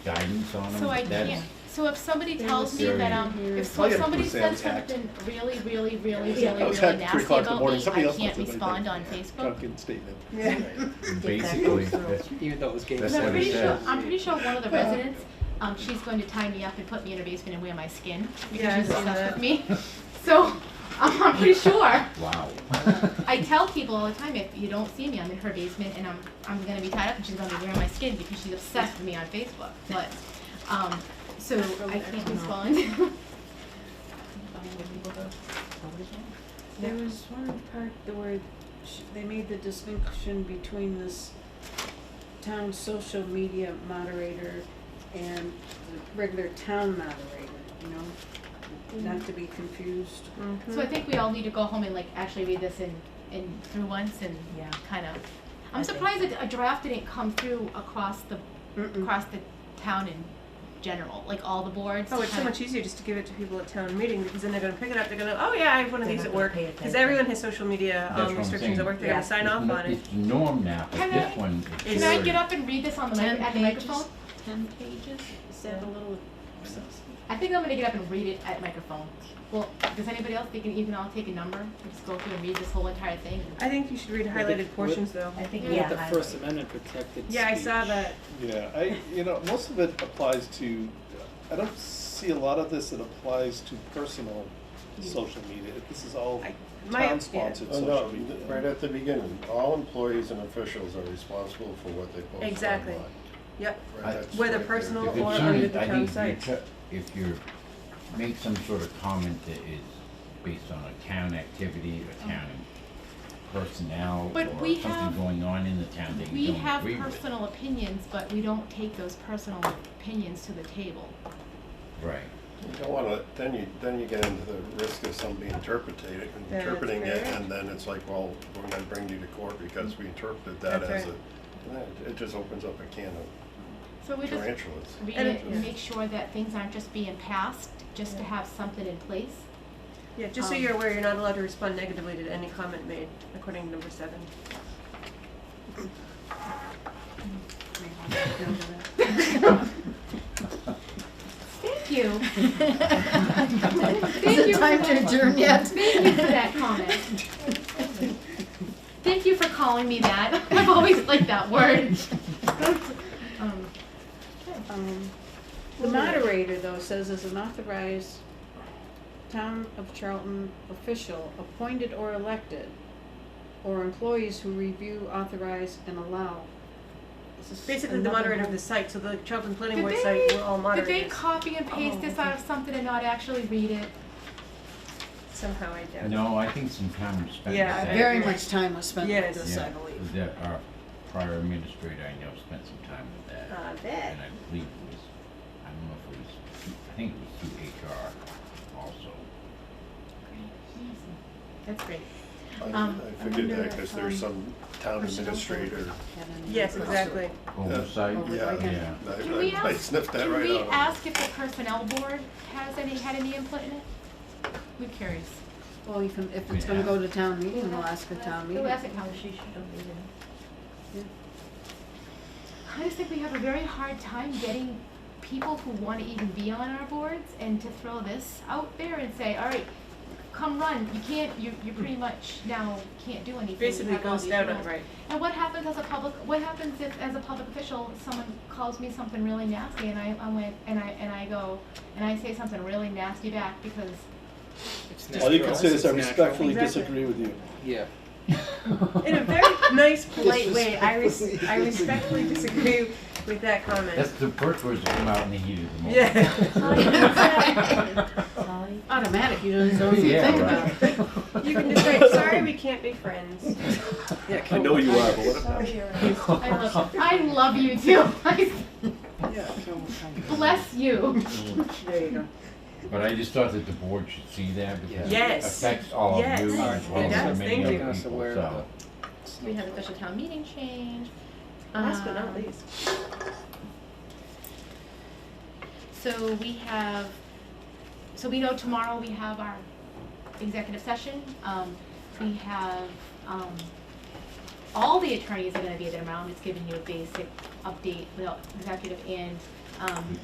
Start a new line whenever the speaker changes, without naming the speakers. guidance on them?
So I
That's-
can't, so if somebody
There
tells
was
me that, um,
something here.
if
Oh,
so-
yeah,
if somebody
because Sam's
says something really, really, really, really,
Yeah.
I was
really
hacked at three
nasty
o'clock in the
about
morning.
me,
Somebody
I
else
can't
must have been
respond on Facebook.
Drunken statement.
Basically, that's,
Even though it was
That's
games.
But I'm
what it
pretty sure,
says.
I'm pretty sure one of the residents, um, she's going to tie me up and put me in a basement and wear my skin
Yeah,
because
I've
she's
seen
obsessed
that.
with me. So, um, I'm pretty sure.
wow.
I tell people all the time, if you don't see me, I'm in her basement and I'm, I'm gonna be tied up and she's gonna be wearing my skin because she's obsessed with me on Facebook, but, um, so I can't respond.
There was one part the where sh- they made the distinction between this town social media moderator and the regular town moderator, you know? Not to be confused.
So I think we all need to go home and like actually read this in, in through once and
Yeah.
kind of,
I
I'm
think
surprised that a draft didn't come through across the,
Mm. Mm-mm.
across the town in general, like all the boards.
Oh, it's so
kinda-
much easier just to give it to people at town meeting because then they're gonna pick it up. They're gonna, oh yeah, I have one of
They're
these
not
at
gonna
work
pay
because
attention.
everyone has social media
That's what
um,
I'm
restrigtions at
saying.
work. They're gonna
Yeah.
sign off on it.
It's norm now, but
Can
this
I-
one is.
Can I
very-
get up and read this on the mic, at the microphone?
Ten pages. Is that a little?
I think I'm gonna get up and read it at microphone. Well, does anybody else, they can, you can all take a number and just go through and read this whole entire thing.
I think you should read highlighted portions though.
I think,
Yeah.
yeah.
The
I-
First Amendment protected
Yeah, I saw
speech.
that.
Yeah, I, you know, most of it applies to, I don't see a lot of this that applies to personal social media. This is all
I- my-
town-sponsored
Oh, no,
social media.
right at the beginning, all employees and officials are responsible for what they post
Exactly.
online.
Yep.
I-
Right, that's
Whether
right there.
personal
If
or
it's
under
certain,
the
I
town
think you
site.
try, if you make some sort of comment that is based on a town activity or town personnel or
Oh. But we
something
have-
going on in the town that you
We
don't
have
agree with.
personal opinions, but we don't take those personal opinions to the table.
Right.
You don't wanna, then you, then you get into the risk of somebody interpreting,
That's
interpreting it,
correct.
and then it's like, well, we're gonna bring you to court because we interpreted that
That's
as a,
right.
and then it- it just opens up a can of
So we just
tarantulas.
read
And
it
it-
and make sure that things aren't just being passed, just to have something in place.
Yeah, just so
Um,
you're aware, you're not allowed to respond negatively to any comment made, according to number seven.
Thank you. Thank you for
Time
that-
to adjourn yet?
Thank you for that comment. Thank you for calling me that. I've always liked that word. Um,
Um,
The moderator, though, says as an authorized town of Charlton official, appointed or elected, or employees who review, authorize, and allow. This is
Basically, the
another
moderator of
whole-
the site, so the Charlton Planning
Did
Board
they-
site, we're all
Did they
moderators.
copy and paste
Oh,
this out of something and not actually read it?
Somehow I doubt. it.
No, I think some time was spent.
uh,
Yeah,
with that.
Very much time was spent
Yes.
with this, I
Yeah,
believe.
that our prior administrator, I know, spent some time with that.
Uh,
I bet.
And I believe it was, I don't know if it was, through- I think it was through HR also.
That's great.
I
Um,
I figured
wonder
that,
if,
cause there's some town administrator,
Had any-
Yes, exactly.
Oversight,
Over-
yeah,
Okay.
yeah.
I-
Can we
I I
ask,
sniffed that
can
right out.
we ask if the personnel board has any, had any input in it? We're curious.
Well, if, if it's gonna go to town meeting, we'll ask the town meeting.
Who asked it, how?
She should have read it.
I just think we have a very hard time getting people who wanna even be on our boards and to throw this out there and say, all right, come run, you can't, you, you pretty much now can't do anything. You
Basically,
have all
goes
these
down on
rules.
right.
And what happens as a public, what happens if, as a public official, someone calls me something really nasty and I, I went, and I, and I go, and I say something really nasty back because
All you can say is I
It's natural.
respectfully
Exactly.
disagree with you.
Yeah.
In a very nice, polite way, I res- I respectfully disagree with
That's
that comment.
the first words that come out in the heat of the moment.
Yeah.
Holly?
Automatic, you don't, don't even
Yeah,
think about it.
right.
You can just say, sorry, we can't be friends.
Yeah,
I
can
know you are, but what about?
I love, I love you too. I bless you.
There you go.
But I just thought that the board should see that because it
Yes.
affects all of you
Yes.
as well
Yes,
as the many
thank
other
you.
people,
Us aware of
so.
We have a special town meeting change.
Last but not
Um,
least.
So we have, so we know tomorrow we have our executive session. Um, we have, um, all the attorneys are gonna be at their round. It's giving you a basic update, well, executive and, um,